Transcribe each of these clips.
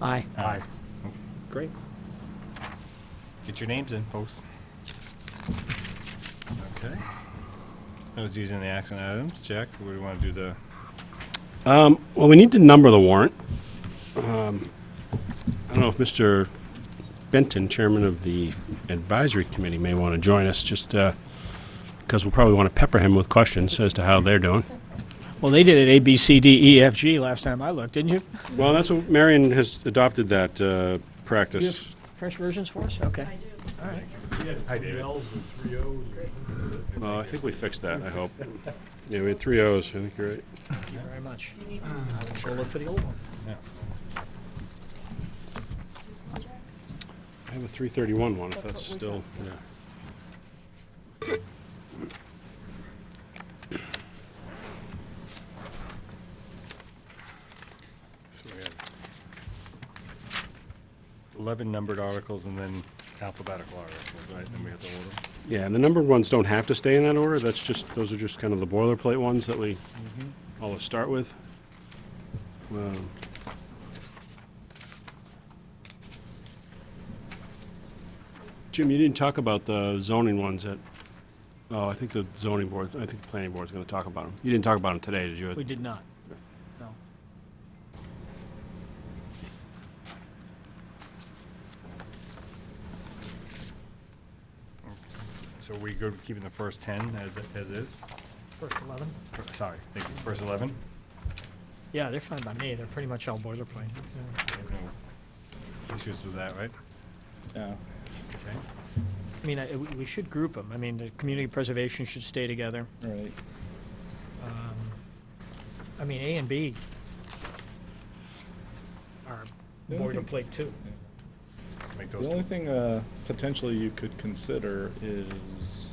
Aye. Aye. Great. Get your names in, folks. Okay. That was using the action items. Jack, what do you want to do the, Well, we need to number the warrant. Um, I don't know if Mr. Benton, chairman of the advisory committee, may want to join us, just because we'll probably want to pepper him with questions as to how they're doing. Well, they did it A, B, C, D, E, F, G last time I looked, didn't you? Well, that's what, Marion has adopted that uh, Do you have practice. fresh versions for us? Okay. Well, I think we fixed that, I hope. Yeah, we had three O's, I think you're right. Thank you very much. I will go look for the old one. I have a 331 one, if that's still, yeah. so we have 11 numbered articles and then alphabetical articles, right? Then we have to order. them. Yeah, and the numbered ones don't have to stay in that order, that's just, those are just kind of the boilerplate ones that we always start with. Um, Jim, you didn't talk about the zoning ones that, oh, I think the zoning board, I think the planning board's gonna talk about them. You didn't talk about them today, did you? We did not. No. So we go keeping the first 10 as, as is? First 11? Or, Sorry, thank you. First 11? Yeah, they're fine by me. They're pretty much all boilerplate. Yeah. No Issues with that, right? Okay. I mean, I- we we should group them. I mean, the community preservation should stay together. All right. I mean, A and B are Yeah, I think- boilerplate too. Let's Make those The only two. thing uh, potentially you could consider is,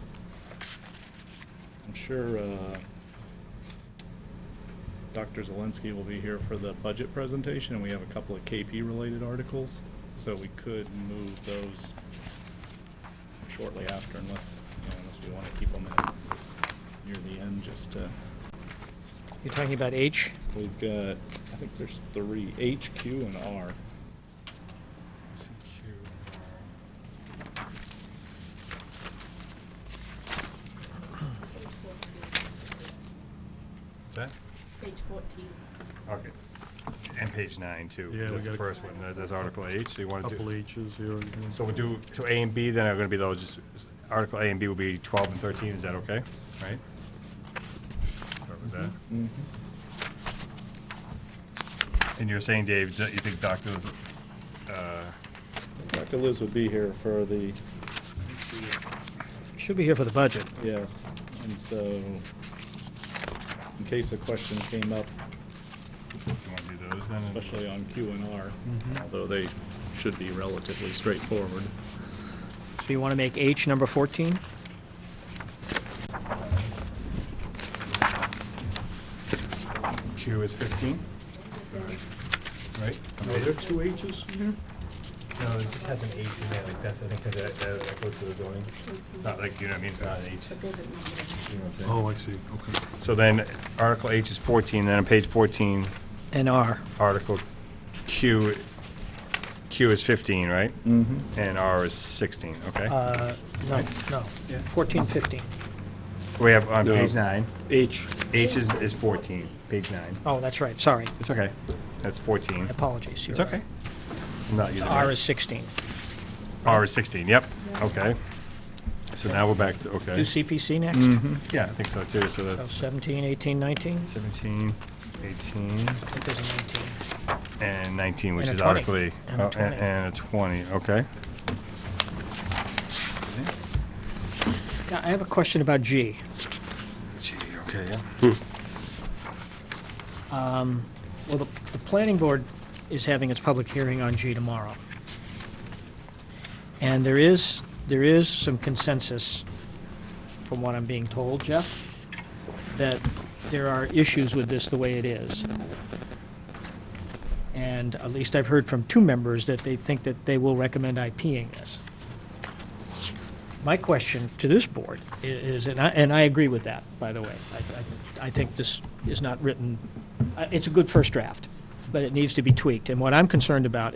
I'm sure uh, Dr. Zelensky will be here for the budget presentation, and we have a couple of KP-related articles, so we could move those shortly after unless, you know, unless we want to keep them in near the end, just to, You're talking about H? we've got, I think there's three, H, Q, and R. CQ. What's that? Page 14. Okay. And page nine, too. Yeah, we That's the gotta- first one. That- That's Article H. So you want to Couple do, H's here. and there. so we do, so A and B then are going to be those, just- Article A and B will be 12 and 13. Is that okay? Right? Start with that. Mm-hmm. And you're saying, Dave, that you think Dr. Liz- uh, Dr. Liz would be here for the Should be here for the budget. Yes, and so, in case a question came up, you want to do those then? especially on Q and R, although they should be relatively straightforward. So you want to make H number 14? Q is 15, right? Are there two H's here? No, it just has an H in there, like that's, I think, because that, that goes to the zoning. Not like, you know what I mean, it's not an H. Oh, I see, okay. So then, Article H is 14, then on page 14, And R. Article Q, Q is 15, right? Mm-hmm. And R is 16, Uh, okay? No, no. 14, 15. We have on No. page nine, H. H is, is 14, page nine. Oh, that's right, sorry. It's okay, that's 14. Apologies. It's you're right. okay. I'm not using R my- is 16. R is 16, yep, okay. So now we're back to, okay. Do CPC next? Yeah, I think so too, so So that's 17, 18, 19? 17, I 18, think there's a 19. and 19, which And a is 20. Article E. And a Oh, a- 20. And a 20, okay. Now, I have a question about G. Gee, okay, yeah. Well, the, the planning board is having its public hearing on G tomorrow. And there is, there is some consensus, from what I'm being told, Jeff, that there are issues with this the way it is. And at least I've heard from two members that they think that they will recommend IPing this. My question to this board i- is, and I, and I agree with that, by the way. I- I, I think this is not written, I- it's a good first draft, but it needs to be tweaked. And what I'm concerned about